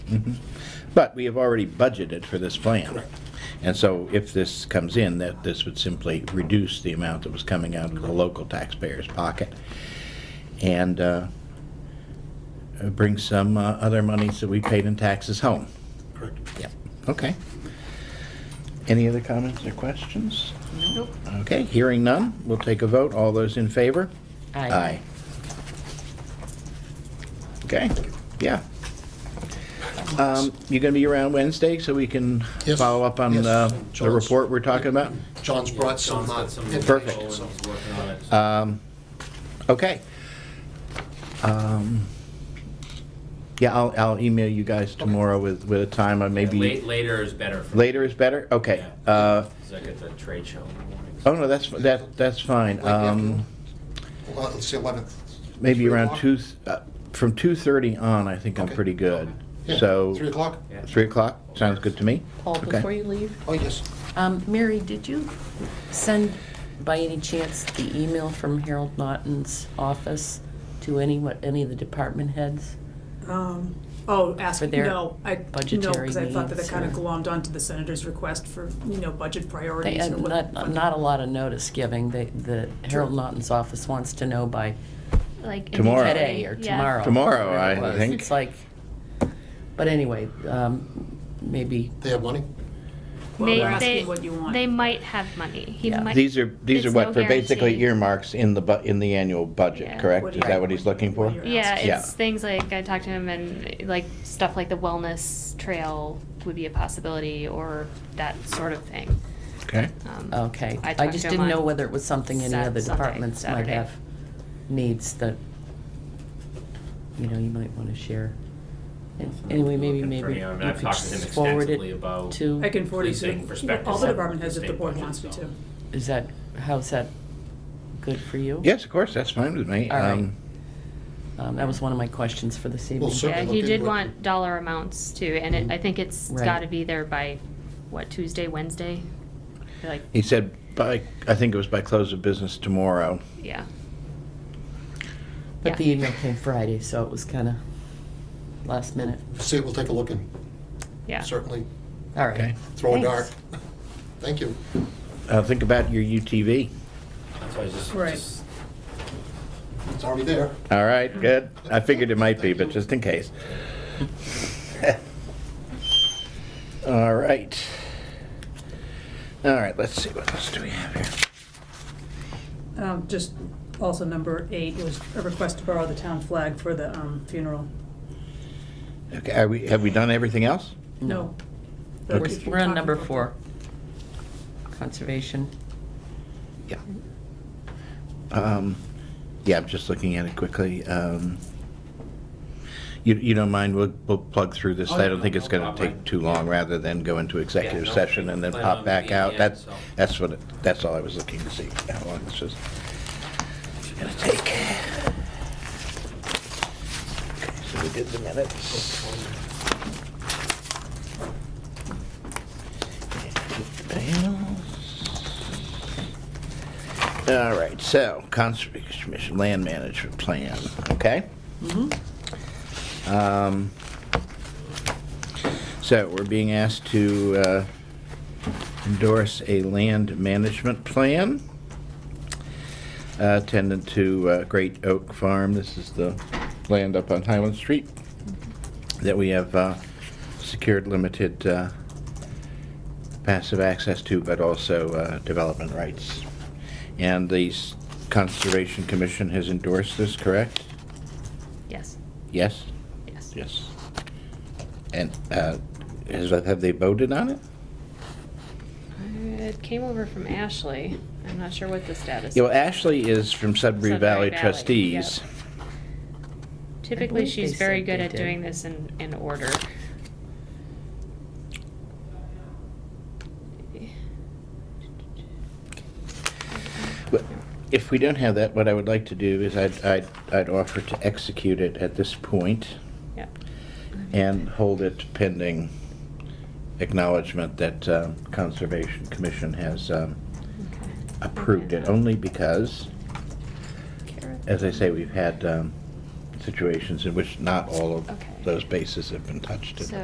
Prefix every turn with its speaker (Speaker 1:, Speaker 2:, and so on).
Speaker 1: But we have already budgeted for this plan. And so if this comes in, that this would simply reduce the amount that was coming out of the local taxpayer's pocket and uh, bring some uh, other monies that we paid in taxes home.
Speaker 2: Correct.
Speaker 1: Yep, okay. Any other comments or questions?
Speaker 3: Nope.
Speaker 1: Okay, hearing none, we'll take a vote. All those in favor? Aye. Okay, yeah. Um, You're going to be around Wednesday, so we can
Speaker 2: Yes,
Speaker 1: follow up on
Speaker 2: yes.
Speaker 1: uh, the
Speaker 2: John's-
Speaker 1: report we're talking about?
Speaker 2: John's brought some. uh, information,
Speaker 1: Perfect. Uh,
Speaker 2: so-
Speaker 1: Okay. Um, Yeah, I'll, I'll email you guys tomorrow with, with a time, or
Speaker 4: Late,
Speaker 1: maybe
Speaker 4: later is better for.
Speaker 1: later is better? Okay.
Speaker 4: Yeah.
Speaker 1: Uh,
Speaker 4: Cause I get the trade show in the morning.
Speaker 1: Oh, no, that's, that, that's fine.
Speaker 2: Like afternoon?
Speaker 1: Um,
Speaker 2: Well, Let's see, 11th.
Speaker 1: Maybe
Speaker 2: Three
Speaker 1: around
Speaker 2: o'clock?
Speaker 1: two, uh, from 2:30 on, I think I'm
Speaker 2: Okay.
Speaker 1: pretty good.
Speaker 2: Yeah,
Speaker 1: So.
Speaker 2: 3 o'clock?
Speaker 4: Yeah.
Speaker 1: 3 o'clock, sounds good to me.
Speaker 3: Paul,
Speaker 1: Okay.
Speaker 3: before you leave,
Speaker 2: Oh, yes.
Speaker 3: um, Mary, did you send by any chance the email from Harold Naughton's office to any, what, any of the department heads?
Speaker 5: Um, Oh, ask,
Speaker 3: For their
Speaker 5: no, I, no,
Speaker 3: budgetary
Speaker 5: because I thought that it
Speaker 3: needs
Speaker 5: kind of
Speaker 3: or-
Speaker 5: glommed onto the senator's request for, you know, budget
Speaker 3: They,
Speaker 5: priorities
Speaker 3: uh,
Speaker 5: or what.
Speaker 3: not, not a lot of notice giving. They, the Harold Naughton's office wants to know by
Speaker 6: like in
Speaker 1: Tomorrow.
Speaker 6: Italy.
Speaker 3: today or
Speaker 6: Yeah.
Speaker 3: tomorrow.
Speaker 1: Tomorrow,
Speaker 3: whatever it
Speaker 1: I
Speaker 3: was.
Speaker 1: think.
Speaker 3: It's like, but anyway, um, maybe,
Speaker 2: They have money?
Speaker 5: Well,
Speaker 6: They,
Speaker 5: we're
Speaker 6: they,
Speaker 5: asking what you want.
Speaker 6: they might have money. He
Speaker 3: Yeah.
Speaker 6: might.
Speaker 1: These are, these are
Speaker 6: There's
Speaker 1: what,
Speaker 6: no
Speaker 1: for basically
Speaker 6: guarantee.
Speaker 1: earmarks in the, bu- in the annual budget,
Speaker 6: Yeah.
Speaker 1: correct?
Speaker 5: What
Speaker 1: Is
Speaker 5: do
Speaker 1: that
Speaker 5: you-
Speaker 1: what he's looking for?
Speaker 5: what do you-
Speaker 6: Yeah, it's
Speaker 1: Yeah.
Speaker 6: things like I talked to him and like stuff like the wellness trail would be a possibility or that sort of thing.
Speaker 1: Okay.
Speaker 6: Um,
Speaker 3: okay.
Speaker 6: I
Speaker 3: I
Speaker 6: talked
Speaker 3: just
Speaker 6: to him
Speaker 3: didn't know
Speaker 6: on
Speaker 3: whether it was something any
Speaker 6: Sat-
Speaker 3: other
Speaker 6: Sunday,
Speaker 3: departments might
Speaker 6: Saturday.
Speaker 3: have needs that, you know, you might want to share. And Anyway, maybe,
Speaker 4: Looking for
Speaker 3: maybe
Speaker 4: me. I
Speaker 3: you
Speaker 4: mean, I've
Speaker 3: could
Speaker 4: talked to him
Speaker 3: just forward
Speaker 4: extensively
Speaker 3: it
Speaker 4: about-
Speaker 3: to,
Speaker 5: I can forward it
Speaker 4: Precinct
Speaker 5: to the-
Speaker 4: perspective.
Speaker 5: all the department heads if the
Speaker 4: State
Speaker 5: board
Speaker 4: budget,
Speaker 5: wants me
Speaker 4: so.
Speaker 5: to.
Speaker 3: is that, how's that good for you?
Speaker 1: Yes, of course, that's fine with me.
Speaker 3: All right.
Speaker 1: Um,
Speaker 3: Um, That was one of my questions for this evening.
Speaker 2: sir.
Speaker 6: Yeah,
Speaker 2: Certainly
Speaker 6: he
Speaker 2: look
Speaker 6: did
Speaker 2: into it.
Speaker 6: want dollar amounts too, and it, I think it's
Speaker 3: Right.
Speaker 6: got to be there by what Tuesday, Wednesday, like
Speaker 1: He said by, I think it was by close of business tomorrow.
Speaker 6: yeah.
Speaker 3: But the
Speaker 6: Yeah.
Speaker 3: email came Friday, so it was kind of last minute.
Speaker 2: See, we'll take a look and
Speaker 6: Yeah.
Speaker 2: certainly
Speaker 3: All
Speaker 1: Okay.
Speaker 3: right.
Speaker 2: throw a dart. Thank
Speaker 6: Thanks.
Speaker 2: you.
Speaker 1: Uh, Think about your UTV.
Speaker 4: That's why I just,
Speaker 5: Right.
Speaker 4: just
Speaker 2: It's already there.
Speaker 1: All right, good. I figured it might be, but just in case. All right. All right, let's see, what else do we have here?
Speaker 5: Um, Just also number eight was a request to borrow the town flag for the um, funeral.
Speaker 1: Okay, are we, have we done everything else?
Speaker 5: No.
Speaker 3: We're
Speaker 5: But if you're
Speaker 3: we're on
Speaker 5: talking
Speaker 3: number
Speaker 5: about-
Speaker 3: four. Conservation.
Speaker 1: Yeah. Um, Yeah, I'm just looking at it quickly. Um, You, you don't mind, we'll, we'll plug through this. I
Speaker 4: Oh, yeah,
Speaker 1: don't
Speaker 4: no,
Speaker 1: think it's
Speaker 4: no
Speaker 1: gonna
Speaker 4: problem.
Speaker 1: take too long, rather than go into executive
Speaker 4: no,
Speaker 1: session and then
Speaker 4: plan
Speaker 1: pop
Speaker 4: on
Speaker 1: back
Speaker 4: being
Speaker 1: out.
Speaker 4: in,
Speaker 1: That's,
Speaker 4: so.
Speaker 1: that's what, it- that's all I was looking to see, how long this is gonna take. Okay, So we did the minutes. All right, so Conservation Commission Land Management Plan, okay?
Speaker 4: Mm-hmm.
Speaker 1: Um, So we're being asked to uh, endorse a land management plan uh, attendant to uh, Great Oak Farm. This is the land up on Highland Street that we have uh, secured limited uh, passive access to, but also uh, development rights. And the s- Conservation Commission has endorsed this, correct?
Speaker 6: Yes.
Speaker 1: Yes?
Speaker 6: Yes.
Speaker 1: Yes. And uh, has, have they voted on it?
Speaker 6: It came over from Ashley. I'm not sure what the status.
Speaker 1: Yeah, well,
Speaker 6: is.
Speaker 1: Ashley is from Sudbury
Speaker 6: Sudbury
Speaker 1: Valley
Speaker 6: Valley,
Speaker 1: Trustees.
Speaker 6: yep.
Speaker 3: I
Speaker 6: Typically,
Speaker 3: believe
Speaker 6: she's
Speaker 3: they
Speaker 6: very
Speaker 3: said
Speaker 6: good
Speaker 3: they
Speaker 6: at
Speaker 3: did.
Speaker 6: doing this in, in order.
Speaker 1: But If we don't have that, what I would like to do is I'd, I'd, I'd offer to execute it at this point
Speaker 6: Yep.
Speaker 1: and hold it pending acknowledgement that um, Conservation Commission has um,
Speaker 6: Okay.
Speaker 1: approved it, only because, as I say, we've had um, situations in which not all
Speaker 6: Okay.
Speaker 1: of those bases have been touched.
Speaker 6: So